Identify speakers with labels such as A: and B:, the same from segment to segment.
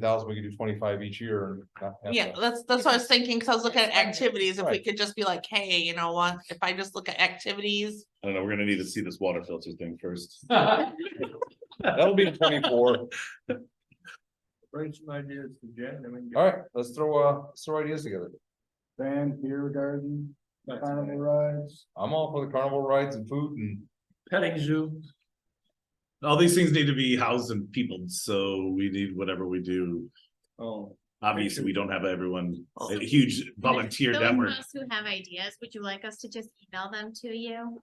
A: thousand, we could do twenty-five each year and not have
B: Yeah,
A: to-
B: that's, that's what I was thinking, cause I was looking at
C: Expand it.
B: activities, if we
A: Right.
B: could just be like, hey, you know what, if I just look at activities.
D: I don't know, we're gonna need to see this water filter thing first.
A: That'll be in twenty-four.
E: Bring some ideas to Jen, I mean.
A: All right, let's throw, uh, let's throw ideas together.
E: Band, beer garden,
D: That's
E: carnival rides.
A: I'm all for the carnival rides and food and
C: Petting zoo.
D: All these things need to be housed and peopled, so we need whatever we do.
E: Oh.
D: Obviously, we don't have everyone,
B: Oh.
D: a huge volunteer
F: Those
D: network.
F: of us Who have ideas, would you like us to just email them to you?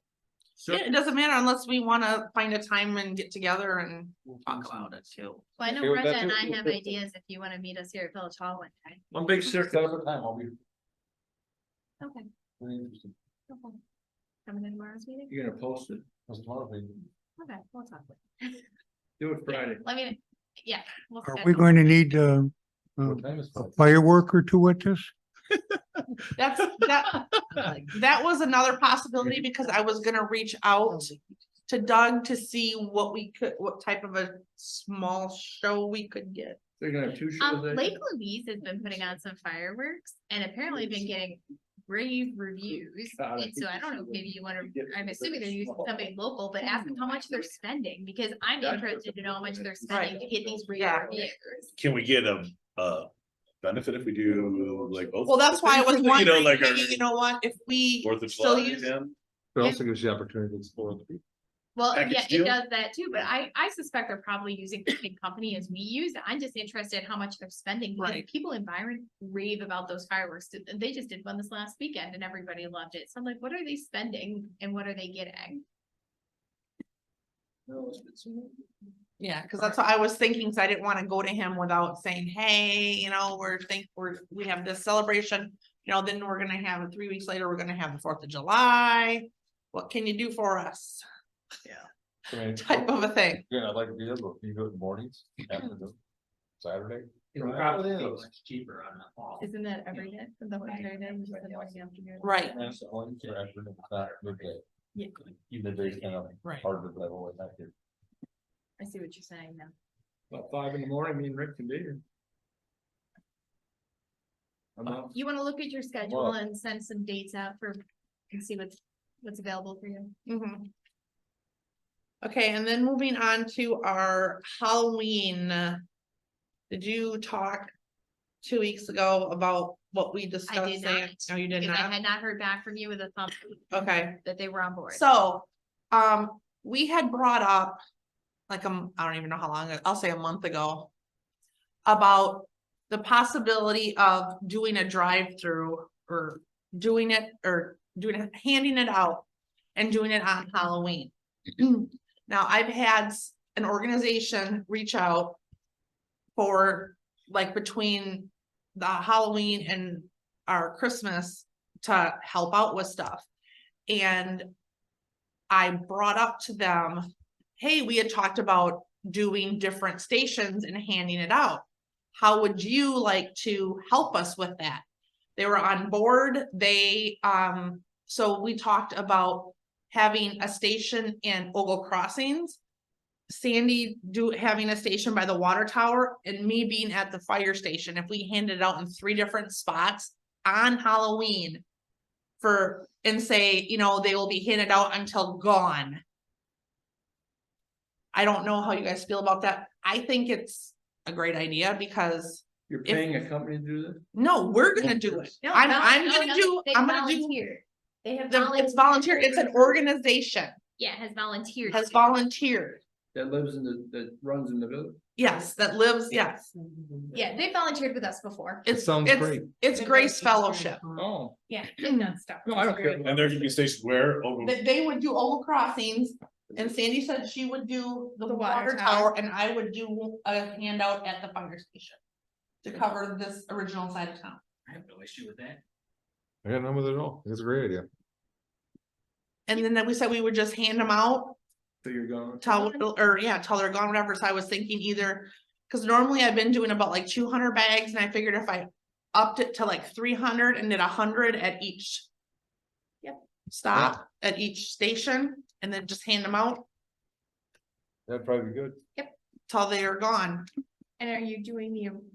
E: So,
B: Yeah, it doesn't matter unless we wanna find a time and get together and talk about it too.
F: Well, I
A: Okay
F: know
A: with that
F: Brenda and
A: too?
F: I have ideas if you wanna meet us here at Village Hall one day.
E: one big
A: set
E: circus.
A: up a time, I'll be.
F: Okay.
A: pretty interested.
F: okay. Coming to tomorrow's meeting?
E: You're gonna post it?
A: That's tomorrow, maybe.
F: Okay, we'll talk. with
E: Do it Friday.
F: Let me, yeah. we'll
G: Are we
F: schedule
G: going to
F: something.
G: need uh, uh,
A: What time is
G: a
A: it?
G: firework or two at this?
B: That's, that, that was another possibility because I was gonna reach out to Doug to see what we could, what type of a small show we could get.
E: They're gonna have two shows.
F: Um,
E: that
F: Lake
E: day?
F: Louise has been putting on some fireworks and apparently been getting rave reviews.
E: God, I
F: And so
E: think
F: I
E: you
F: don't know,
E: should
F: maybe you wanna,
E: you get
F: I'm
E: something
F: assuming they're using
E: small.
F: somebody local, but ask them how much they're spending, because I'm
E: That's
F: interested to know how much they're spending to get these rave
B: Yeah.
F: reviews.
D: Can we get a, a benefit if we do like? oh, both?
B: Well, that's why I was
D: You know,
B: wondering,
D: like our
B: hey, you know what, if we
D: Fourth of
B: still
D: July
B: use,
D: weekend?
A: But also gives you the opportunity to explore the people.
F: Well, yeah,
D: Package
F: it
D: deal?
F: does that too, but I, I suspect they're probably using the same company as we use. I'm just interested how much they're spending. because
B: Right.
F: People in Byron rave about those fireworks. Th- They just did one this last weekend and everybody loved it. So I'm like, what are they spending and what are they getting?
E: No, it's- it's-
B: yeah, cause that's what I was thinking, so I didn't wanna go to him without saying, hey, you know, we're think, we're, we have this celebration. You know, then we're gonna have, three weeks later, we're gonna have the Fourth of July, what can you do for us?
A: I mean,
B: Type of a thing,
A: Yeah, I'd like to be there, but you go in the mornings, afternoon, Saturday.
H: It'll
A: Right.
H: probably
A: Yeah.
H: be much cheaper on the fall.
F: Isn't that every
H: every
F: day? The whole
H: Right.
F: entire
H: entire
F: day?
H: day, just the morning, afternoon?
B: right,
A: And it's only for afternoon, it's not midday.
F: Yeah.
A: Midday's kind of
B: Right.
A: harder to level with that here.
F: I see what you're saying now.
E: About five in the morning, me and Rick can be here. I'm out.
F: You wanna look at your schedule
A: Well-
F: and send some dates out for, and see what's, what's available for you.
B: Mhm. Okay, and then moving on to our Halloween. uh, Did you talk two weeks ago about what we discussed? there?
F: not,
B: No, you did
F: Because I
B: not?
F: had not heard back from you with a thumb
B: Okay,
F: that they were on board.
B: so, um, we had brought up, like, um, I don't even know how long, ago- I'll say a month ago. About the possibility of doing a drive-through or doing it or doing, it, handing it out and doing it on Halloween. Now, I've had s- an organization reach out for like between the Halloween and our Christmas to help out with stuff. And I brought up to them, hey, we had talked about doing different stations and handing it out. How would you like to help us with that? They were on board. They, um, so we talked about having a station in Ogle Crossings. Sandy do, having a station by the water tower and me being at the fire station. If we handed it out in three different spots on Halloween. For, and say, you know, they will be handed out until gone. I don't know how you guys feel about that. I think it's a great idea because
E: You're
B: If-
E: paying a company to do this?
B: no, we're gonna do it.
F: No,
B: I'm,
F: no,
B: I'm
F: no,
B: gonna
F: no,
B: do,
F: they
B: I'm gonna do,
F: volunteer. They have.
B: the- it's volunteer, it's an organization,
F: Yeah, has volunteered.
B: has volunteered.
E: That lives in the, that runs in the village?
B: Yes, that lives, yes.
F: Yeah, they volunteered with us before.
A: It
B: It's,
A: sounds
B: it's,
A: great.
B: Mm-hmm. it's Grace Fellowship.
E: Oh.
F: Yeah, they've done stuff.
E: No, I don't care.
D: And there can be stations where oh, over.
B: That they would do Oval Crossings and Sandy said she would do the
F: The
B: water
F: water
B: tower and I would do a handout at the fire station. To cover this original side of town.
H: I have no issue with that.
A: I got none with it at all. It's a great idea.
B: And then we said we would just hand them out
E: So you're going.
B: Tell, or yeah, till they're gone, whatever, so I was thinking either, cause normally I've been doing about like two hundred bags and I figured if I. Upped it to like three hundred and did hundred at each.
F: Yep.
B: Stop at each station and then just hand them out
A: That'd probably be good.
B: till they are gone.
F: And are you doing the